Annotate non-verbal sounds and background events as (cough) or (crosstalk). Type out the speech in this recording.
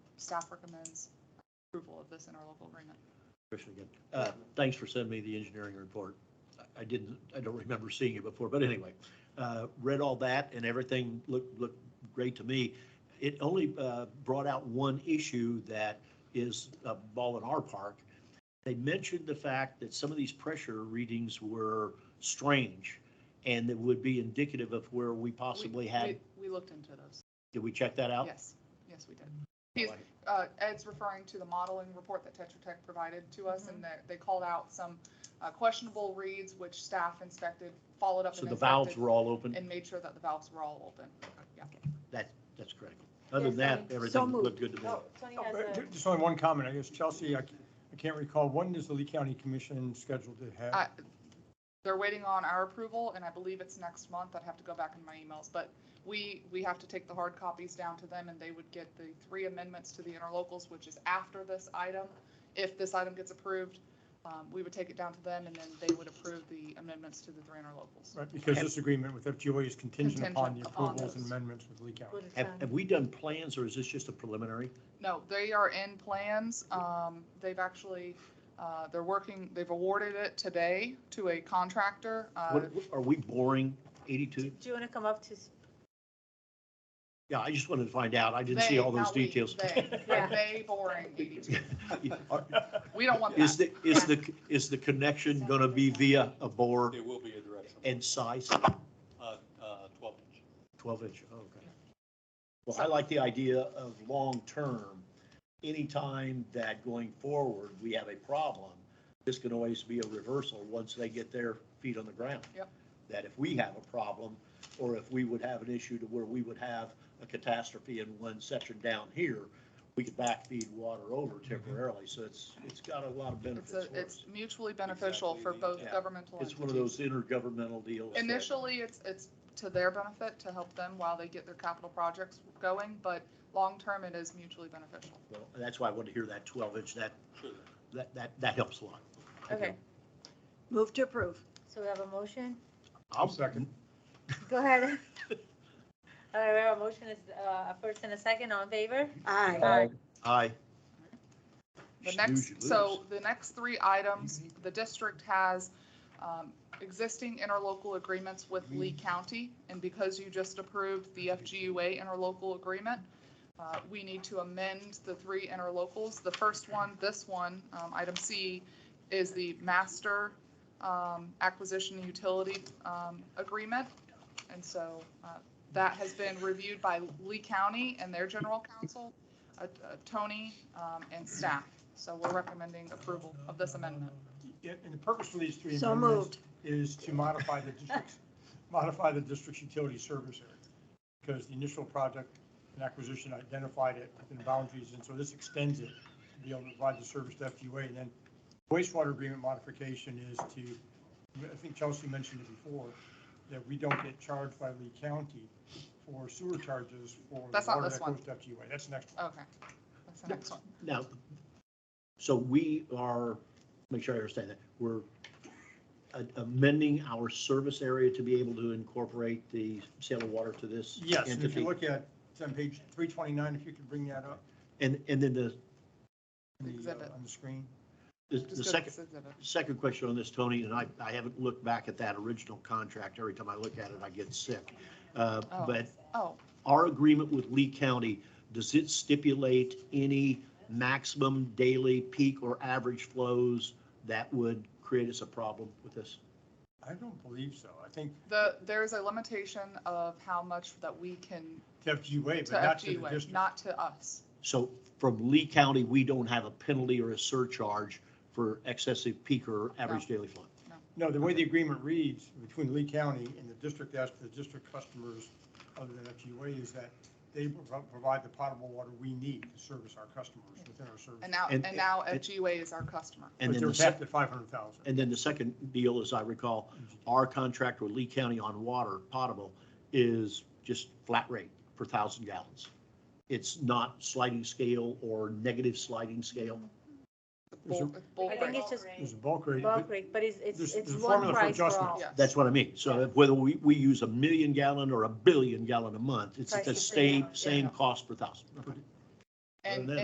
staff recommends approval of this interlocal agreement. Commissioner again. Uh, Thanks for sending me the engineering report. I- I didn't, I don't remember seeing it before, but anyway, uh, read all that and everything looked, looked great to me. It only uh, brought out one issue that is a ball in our park. They mentioned the fact that some of these pressure readings were strange and that would be indicative of where we possibly We- had, Oh. We we looked into those. did we check that out? Yes, yes, we did. Oh, He's- uh, Ed's referring to the modeling report that Tetra Tech provided to us, and that they called out some uh, questionable reads, which staff inspected, followed up So and the valves inspected, were all open? and made sure that the valves were all open. Yeah. That, that's correct. Other than that, So everything moved. looked good to me. Oh, Tony has Uh, a, ju- Just only one comment, I guess, Chelsea, I c- I can't recall, when is the Lee County Commission scheduled to I- have? They're waiting on our approval, and I believe it's next month. I'd have to go back in my emails, but we, we have to take the hard copies down to them, and they would get the three amendments to the interlocals, which is after this item. If this item gets approved, um, we would take it down to them, and then they would approve the amendments to the three interlocals. Right, because this agreement with FGOA is contingent upon the Contingent upon approvals and those. amendments with Lee County. what is Have, that? have we done plans or is this just a preliminary? No, they are in plans. Um, they've actually, uh, they're working, they've awarded it today to a contractor. Uh, What, what- are we boring do eighty-two? do you want to come up to, s- Yeah, I just wanted to find out. I didn't see they, all those not we, details. (laughs) They, Yeah. they boring 82. Are- We don't want Is that. the, is the, is the connection gonna be via a bore It will be a directional, and size? uh, uh, twelve inch. Twelve inch, Oh, okay. Well, I like the idea of long-term. Anytime that going forward, we have a problem, this can always be a reversal once they get their feet on the ground. Yep. That if we have a problem, or if we would have an issue to where we would have a catastrophe in one section down here, we could backfeed water over temporarily, so it's, it's got a lot of Mm-hmm. It's, a- benefits for it's us. mutually beneficial for Exactly, both yeah. governmental It's one of entities. those intergovernmental deals. that- Initially, it's, it's to their benefit to help them while they get their capital projects going, but long-term, it is mutually beneficial. Well, That's why I wanted to hear that twelve inch, that, Sure. that, that, that helps a lot. okay, Move to approve. so we have a motion? I'll second. Go (laughs) ahead. All right, we have a motion, is, uh, a first and a second, all in favor? Aye. Aye. The Snooze, you next, so lose. the next three items, the district has um, existing interlocal agreements with Lee County. And because you just approved the FGUA interlocal agreement, uh, we need to amend the three interlocals. The first one, this one, um, item C, is the master um, acquisition utility um, agreement. And so uh, that has been reviewed by Lee County and their general counsel, uh, uh, Tony, um, and staff. So we're recommending approval of this amendment. Yeah, And the purpose for these three So amendments moved. is to modify the district's, (laughs) modify the district's utility service area. Because the initial project and acquisition identified it within boundaries, and so this extends it to be able to provide the service to FGUA. And then wastewater agreement modification is to, I think Chelsea mentioned it before, that we don't get charged by Lee County for sewer charges for the That's not water this that one. goes to FGUA. That's the next one. Okay. That's the next one. Now, so we are, make sure I understand that, we're a- amending our service area to be able to incorporate the sale of water to this Yes, and if you entity. look at, it's on page 329, if you could bring that up And, and then the, on the, Exhibit. uh, on the screen. the Just the go to second, this exhibit. second question on this, Tony, and I, I haven't looked back at that original contract. Every time I look at it, I get sick. Uh, Oh. But Oh, our agreement with Lee County, does it stipulate any maximum daily peak or average flows that would create us a problem with this? I don't believe so. I think the, there's a limitation of how much that we can, to FGUA, to but not to the FGUA, district. not to us. So from Lee County, we don't have a penalty or a surcharge for excessive peak or average daily flow. No, the way the agreement reads between Lee County and the district, as to the district customers other than FGUA, is that they pro- provide the potable water we need to service our customers within our service. And now, And- and now and- FGUA is our customer. And But then they're the sec- capped at 500,000. And then the second deal, as I recall, our contract with Lee County on water potable is just flat rate per thousand gallons. It's not sliding scale or negative sliding scale. Bull- bull I think price. it's just There's a bulk rate. but bulk rate, but it's, it's, There's- it's there's a one formula for price for adjustment. all. Yeah. That's what I mean. So if- whether we, we use a million gallon or a billion gallon a month, it's Price the is the same, same, same yeah. cost per thousand. And, Other than